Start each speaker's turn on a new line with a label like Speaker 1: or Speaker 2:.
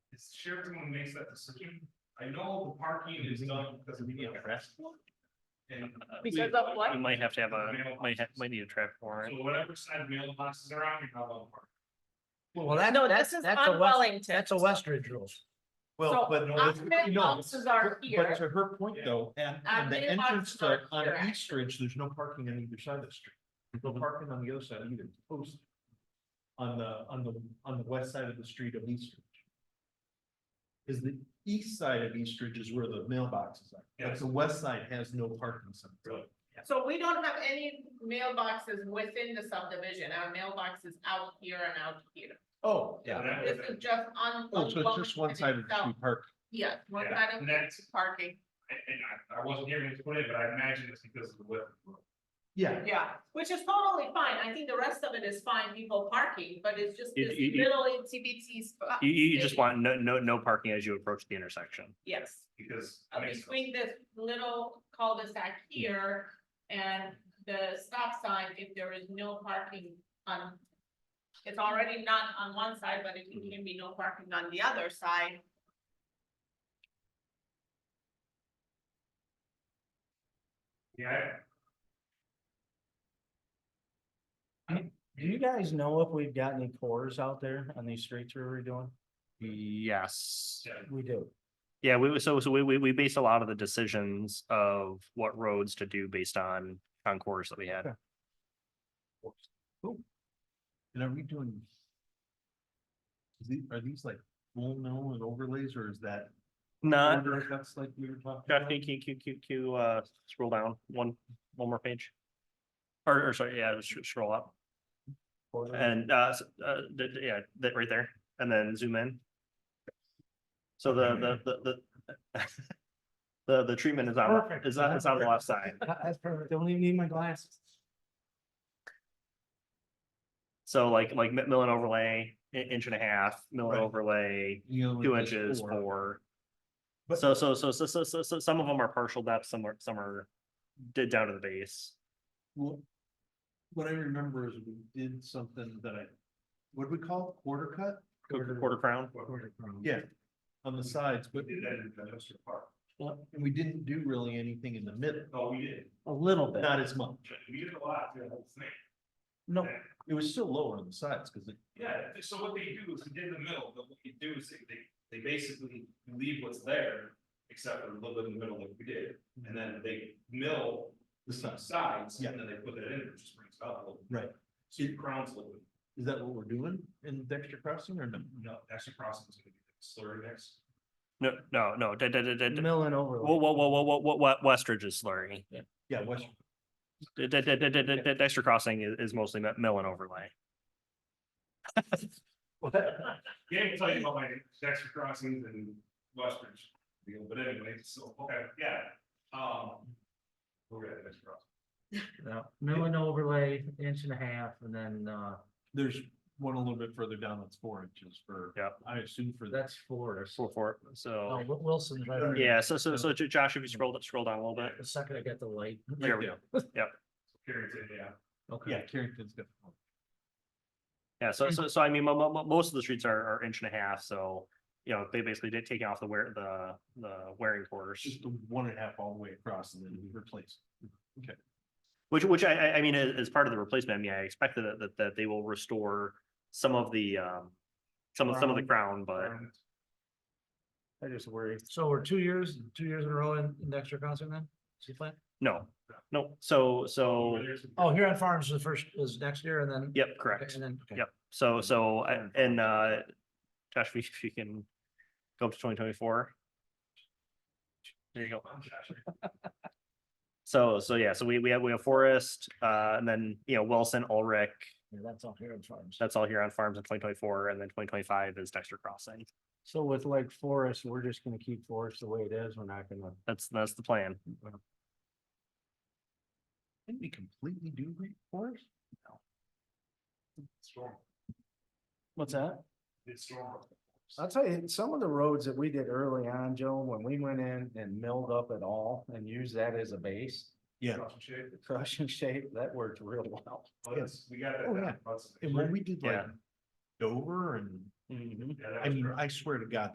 Speaker 1: it's Sheraton who makes that decision. I know the parking
Speaker 2: Mm-hmm.
Speaker 1: is done because we need a festival. And.
Speaker 3: Because of what?
Speaker 2: We might have to have a, might have, might need a traffic warrant.
Speaker 1: So whatever side mailboxes are on, you have a park.
Speaker 4: Well, that,
Speaker 3: No,
Speaker 4: that's,
Speaker 3: this is
Speaker 4: that's a
Speaker 3: on
Speaker 4: West,
Speaker 3: Wellington.
Speaker 4: that's a Westridge rules.
Speaker 3: So
Speaker 5: Well, but no, it's-
Speaker 3: Ahmed
Speaker 5: no,
Speaker 3: houses are here.
Speaker 5: but to her point though, and, and the
Speaker 3: Ahmed
Speaker 5: entrance
Speaker 3: houses are
Speaker 5: to, on
Speaker 3: here, actually.
Speaker 5: East Ridge, there's no parking on either side of the street. No parking on the other side either, post. On the, on the, on the west side of the street of East Ridge. Is the east side of East Ridge is where the mailboxes are,
Speaker 1: Yeah.
Speaker 5: but the west side has no parking signs.
Speaker 1: Really?
Speaker 3: So we don't have any mailboxes within the subdivision. Our mailbox is out here and out here.
Speaker 5: Oh,
Speaker 1: And that was
Speaker 3: This
Speaker 1: it.
Speaker 3: is just on.
Speaker 5: Oh, so it's just one side of the street park.
Speaker 3: Yeah, one
Speaker 1: Yeah,
Speaker 3: side of
Speaker 1: and
Speaker 3: the
Speaker 1: that's-
Speaker 3: street parking.
Speaker 1: And and I, I wasn't here to explain it, but I imagine it's because of the weather.
Speaker 5: Yeah,
Speaker 3: Yeah, which is totally fine. I think the rest of it is fine, people parking, but it's just
Speaker 2: It-
Speaker 3: this
Speaker 2: it- it-
Speaker 3: little TBT spot.
Speaker 2: You, you you just want no, no, no parking as you approach the intersection.
Speaker 3: Yes,
Speaker 1: because.
Speaker 3: uh,
Speaker 1: it makes sense.
Speaker 3: between this little cul-de-sac here and the stop sign, if there is no parking on. It's already not on one side, but it can be no parking on the other side.
Speaker 1: Yeah,
Speaker 4: Do you guys know if we've got any cores out there on these streets we were doing?
Speaker 2: Yes.
Speaker 1: yeah.
Speaker 4: We do.
Speaker 2: Yeah, we, so, so we, we, we based a lot of the decisions of what roads to do based on concourse that we had.
Speaker 5: and are we doing? Is the, are these like full mill and overlays or is that?
Speaker 2: Not,
Speaker 5: order That's like we were talking
Speaker 2: Jeff,
Speaker 5: about?
Speaker 2: can you, can you- can you, uh, scroll down one, one more page? Or, or sorry, yeah, just scroll up and, uh, s- uh, th- th- yeah, that right there, and then zoom in. So the, the, the, the. The, the treatment is on,
Speaker 4: Perfect.
Speaker 2: is on, is on the left side.
Speaker 4: That's perfect. Don't even need my glasses.
Speaker 2: So like, like mi- mill and overlay, i- inch and a half, mill and
Speaker 5: Right.
Speaker 2: overlay,
Speaker 5: You know,
Speaker 2: two
Speaker 5: like those
Speaker 2: inches,
Speaker 5: four.
Speaker 2: four.
Speaker 5: But-
Speaker 2: So, so, so, so, so, so, so some of them are partial depth, some are, some are did down to the base.
Speaker 5: Well, What I remember is we did something that I, what do we call it? quarter cut?
Speaker 2: Quarter quarter crown,
Speaker 5: Yeah, on the sides, but,
Speaker 1: We did that in industrial park.
Speaker 5: and we didn't do really anything in the middle,
Speaker 1: No, we did.
Speaker 4: A little bit.
Speaker 5: not as much.
Speaker 1: We did a lot, yeah, that's the thing.
Speaker 4: No,
Speaker 5: It was still lower on the sides, because it,
Speaker 1: Yeah, so what they do is, in the middle, but what they do is they- they, they basically leave what's there, except for a little bit in the middle like we did. And then they mill
Speaker 5: the
Speaker 1: the
Speaker 5: size,
Speaker 1: sides,
Speaker 5: Yeah.
Speaker 1: and then they put that in, which just brings it up a little. bit.
Speaker 5: right.
Speaker 1: So your crown's a little bit,
Speaker 5: Is that what we're doing in Dexter Crossing or no?
Speaker 1: no, extra crossing is gonna be slurry next.
Speaker 2: no, no, no, da, da, da, da, da.
Speaker 4: mill and
Speaker 2: Whoa,
Speaker 4: overlay.
Speaker 2: whoa, whoa, whoa, whoa, whoa, whoa, Westridge is slurry.
Speaker 5: Yeah, West,
Speaker 2: Da- da- da- da- da- da- da- Dexter Crossing is, is mostly mi- mill and overlay.
Speaker 1: Yeah, I can tell you about my extra crossings in Westbridge, deal, but anyway, so, okay, yeah, um. We're at extra crossing.
Speaker 4: No, Mill and overlay, inch and a half, and then, uh,
Speaker 5: there's one a little bit further down that's four inches for.
Speaker 2: Yeah.
Speaker 5: I assume for that.
Speaker 4: that's Florida.
Speaker 2: So for,
Speaker 4: Oh,
Speaker 2: so,
Speaker 4: Wilson's right. there.
Speaker 2: yeah, so, so, so J- Josh, if you scroll, scroll down a little bit.
Speaker 4: The second I get the light.
Speaker 2: There we go.
Speaker 1: Carrington, yeah,
Speaker 4: Okay.
Speaker 5: Yeah, Carrington's got. four.
Speaker 2: Yeah, so, so, so I mean, mo- mo- mo- most of the streets are, are inch and a half, so, you know, they basically did take off the wear, the, the wearing
Speaker 5: It's
Speaker 2: course.
Speaker 5: Just the one and a half all the way across and then we replace.
Speaker 2: Which, which I, I, I mean, as, as part of the replacement, I mean, I expect that, that, that they will restore some of the, um, some of, some of the crown, but
Speaker 4: I just worry. So we're two years, two years in a row in, in the extra concert then? See plan?
Speaker 2: no, no, so, so,
Speaker 1: Over there's-
Speaker 4: Oh, Huron Farms is the first, is next year and then.
Speaker 2: yep, correct.
Speaker 4: And then, okay.
Speaker 2: Yep, so, so, I-
Speaker 5: Fine.
Speaker 2: and, uh, Josh, if you- if you can go up to twenty twenty-four. There you go.
Speaker 1: I'm Josh.
Speaker 2: So, so yeah, so we, we have, we have Forest, uh, and then, you know, Wilson, Ulrich,
Speaker 4: Yeah, that's all Huron Farms.
Speaker 2: that's all here on farms in twenty twenty-four, and then twenty twenty-five is Dexter Crossing.
Speaker 4: So with like Forest, we're just gonna keep Forest the way it is. We're not gonna.
Speaker 2: That's, that's the plan.
Speaker 5: Didn't we completely do Great Forest?
Speaker 1: Storm,
Speaker 4: What's that?
Speaker 1: it's storm.
Speaker 4: I'll tell you, some of the roads that we did early on, Joe, when we went in and milled up at all and used that as a base,
Speaker 5: Yeah.
Speaker 1: Cross and shape.
Speaker 4: the crushing shape, that worked real well.
Speaker 1: Well, that's- we got that.
Speaker 5: Oh,
Speaker 1: down.
Speaker 5: yeah.
Speaker 1: That's-
Speaker 5: And when we did like
Speaker 2: Yeah.
Speaker 5: Dover and,
Speaker 1: Yeah, that
Speaker 5: I
Speaker 4: Mm-hmm.
Speaker 1: was
Speaker 5: mean,
Speaker 1: rough.
Speaker 5: I swear to God,